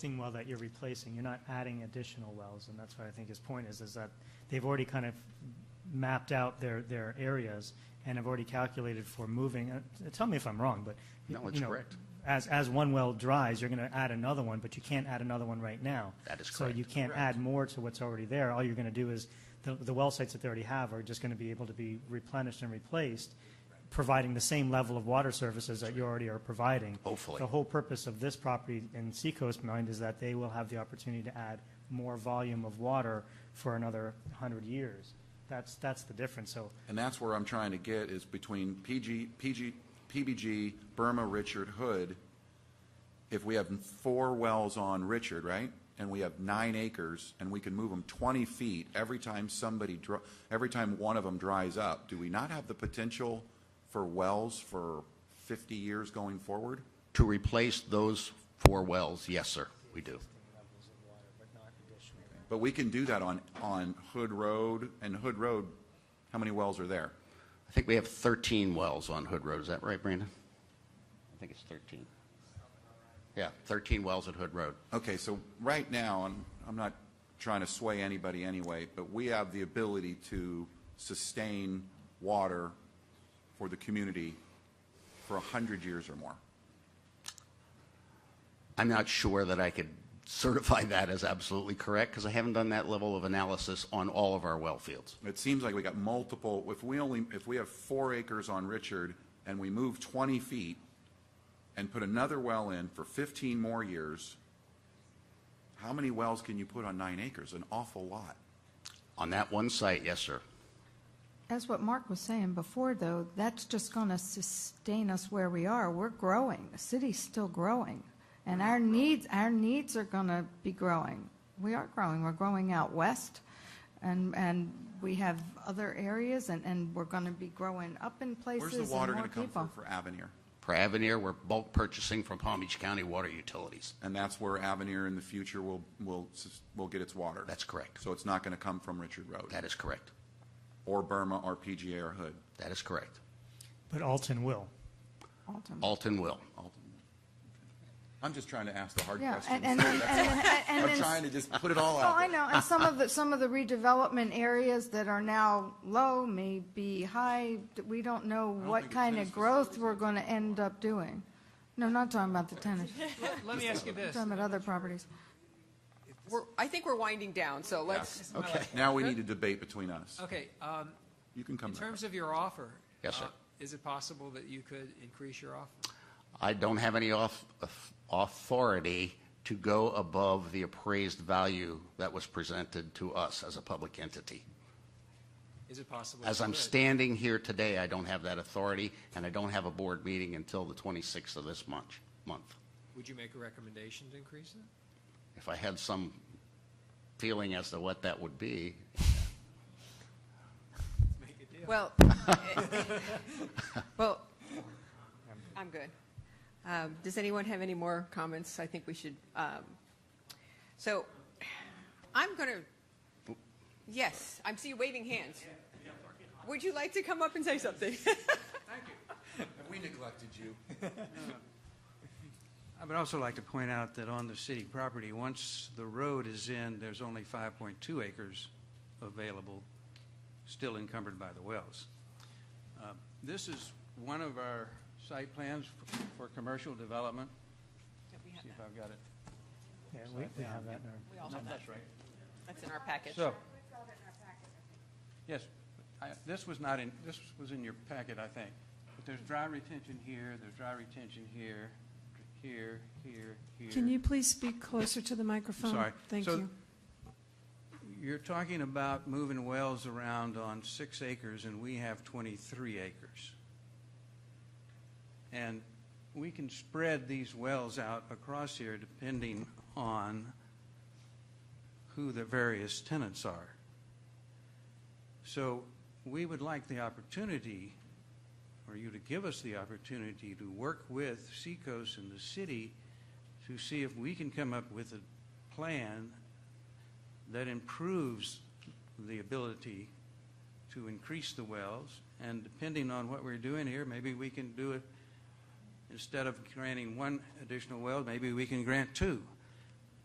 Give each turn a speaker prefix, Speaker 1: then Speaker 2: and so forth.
Speaker 1: existing well that you're replacing, you're not adding additional wells, and that's what I think his point is, is that they've already kind of mapped out their, their areas and have already calculated for moving, uh, tell me if I'm wrong, but.
Speaker 2: No, it's
Speaker 1: you know,
Speaker 2: correct.
Speaker 1: As, as one well dries, you're going to add another one, but you can't add another one right now.
Speaker 2: That is
Speaker 1: So you
Speaker 2: correct.
Speaker 1: can't add more to what's already there. All you're going to do is, the, the well sites that they already have are just going to be able to be replenished and replaced, providing the same level of water services that you already are providing.
Speaker 2: Hopefully.
Speaker 1: The whole purpose of this property in Seacoast Mind is that they will have the opportunity to add more volume of water for another 100 years. That's, that's the difference. So
Speaker 3: And that's where I'm trying to get is between PG, PG, PBG, Burma, Richard, Hood. If we have four wells on Richard, right? And we have nine acres and we can move them 20 feet every time somebody, dr- every time one of them dries up, do we not have the potential for wells for 50 years going forward?
Speaker 2: To replace those four wells, yes, sir, we do.
Speaker 3: But we can do that on, on Hood Road and Hood Road, how many wells are there?
Speaker 2: I think we have 13 wells on Hood Road, is that right, Brandon? I think it's 13. Yeah, 13 wells at Hood Road.
Speaker 3: Okay, so right now, and I'm not trying to sway anybody anyway, but we have the ability to sustain water for the community for 100 years or more.
Speaker 2: I'm not sure that I could certify that as absolutely correct, because I haven't done that level of analysis on all of our well fields.
Speaker 3: It seems like we got multiple, if we only, if we have four acres on Richard and we move 20 feet and put another well in for 15 more years, how many wells can you put on nine acres? An awful lot.
Speaker 2: On that one site, yes, sir.
Speaker 4: As what Mark was saying before, though, that's just going to sustain us where we are. We're growing. The city's still growing. And our needs, our needs are going to be growing. We are growing. We're growing out west, and, and we have other areas, and, and we're going to be growing up in places
Speaker 3: Where's the
Speaker 4: and
Speaker 3: water
Speaker 4: more
Speaker 3: going to come
Speaker 4: people.
Speaker 3: from for Avenir?
Speaker 2: For Avenir, we're bulk purchasing from Palm Beach County Water Utilities.
Speaker 3: And that's where Avenir in the future will, will, s- will get its water.
Speaker 2: That's correct.
Speaker 3: So it's not going to come from Richard Road.
Speaker 2: That is correct.
Speaker 3: Or Burma, or PGA, or Hood.
Speaker 2: That is correct.
Speaker 1: But Alton will.
Speaker 4: Alton.
Speaker 2: Alton will.
Speaker 3: I'm just trying to ask the hard
Speaker 4: Yeah,
Speaker 3: questions.
Speaker 4: and, and, and, and- and
Speaker 3: I'm
Speaker 4: then
Speaker 3: trying to just put it all
Speaker 4: Oh,
Speaker 3: out
Speaker 4: I
Speaker 3: there.
Speaker 4: know, and some of the, some of the redevelopment areas that are now low may be high, we don't know what
Speaker 3: think the
Speaker 4: kind of
Speaker 3: tennis
Speaker 4: growth we're going to end up doing. No, not talking about the tennis,
Speaker 5: Let me ask you this.
Speaker 4: talking about other properties.
Speaker 6: We're, I think we're winding down, so let's,
Speaker 2: Okay.
Speaker 3: Now we need a debate between us.
Speaker 5: Okay, um,
Speaker 3: You can come
Speaker 5: in
Speaker 3: back.
Speaker 5: terms of your offer.
Speaker 2: Yes, sir.
Speaker 5: uh, Is it possible that you could increase your offer?
Speaker 2: I don't have any auth- authority to go above the appraised value that was presented to us as a public entity.
Speaker 5: Is it possible?
Speaker 2: As
Speaker 5: you
Speaker 2: I'm
Speaker 5: could?
Speaker 2: standing here today, I don't have that authority, and I don't have a board meeting until the 26th of this month, month.
Speaker 5: Would you make a recommendation to increase it?
Speaker 2: If I had some feeling as to what that would be,
Speaker 5: Make a deal.
Speaker 6: well, well, I'm good. Um, Does anyone have any more comments? I think we should, um, so I'm going to, yes, I'm see you waving hands. Would you like to come up and say something?
Speaker 3: We neglected you.
Speaker 7: I would also like to point out that on the city property, once the road is in, there's only 5.2 acres available, still encumbered by the wells. Uh, This is one of our site plans for- for commercial development. See if I've got it.
Speaker 1: Yeah, we, we have that in our.
Speaker 7: No, That's right.
Speaker 6: That's in our package.
Speaker 7: So. Yes, I- this was not in, this was in your packet, I think. But there's dry retention here, there's dry retention here, here, here, here.
Speaker 8: Can you please speak closer to the microphone?
Speaker 7: Sorry.
Speaker 8: Thank
Speaker 7: So-
Speaker 8: you.
Speaker 7: You're talking about moving wells around on six acres, and we have 23 acres. And we can spread these wells out across here depending on who the various tenants are. So we would like the opportunity, or you to give us the opportunity to work with Seacoast and the city to see if we can come up with a plan that improves the ability to increase the wells. And depending on what we're doing here, maybe we can do it, instead of granting one additional well, maybe we can grant two.